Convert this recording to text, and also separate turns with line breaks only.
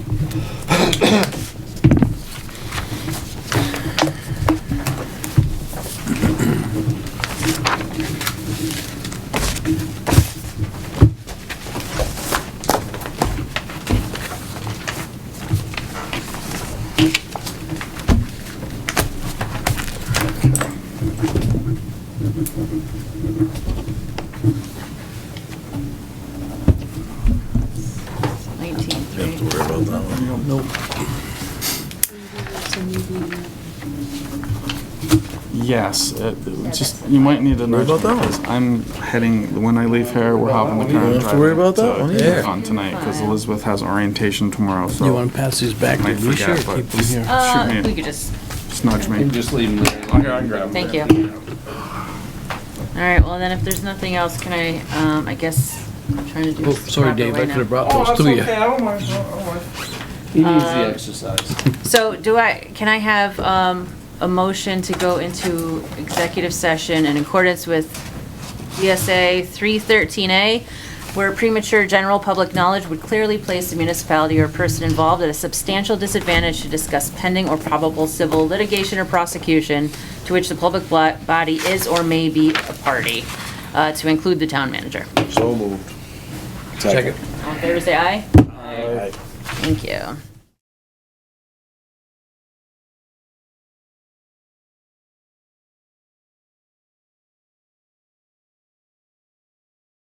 You have to
19.3.
worry about that one.
Nope. Yes, uh, just, you might need a
Worry
nudge.
about that one.
because I'm heading, when I leave here, we're hopping the car
You
and
don't have to worry
driving
about that one
to
either.
Yukon tonight, because Elizabeth has orientation tomorrow, so.
You want to pass these back to
Might
Lucia or
forget, but-
keep them here?
Shoot
Uh,
me.
we could just,
Just nudge
You can
me.
just leave them there. Here, I can grab them.
thank you. All right, well then if there's nothing else, can I, um, I guess, I'm trying to do
Oh,
this the
sorry,
proper
Dave,
way
I could have
now.
brought those to you.
don't mind, Oh, I don't Uh, mind. He needs the exercise.
So do I, can I have, um, a motion to go into executive session in accordance with E ESA 313A, where premature general public knowledge would clearly place the municipality or person involved at a substantial disadvantage to discuss pending or probable civil litigation or prosecution to which the public blo- body is or may be a party, uh, to include the town manager.
So moved.
Second.
All in favor, say aye.
Aye.
Thank you.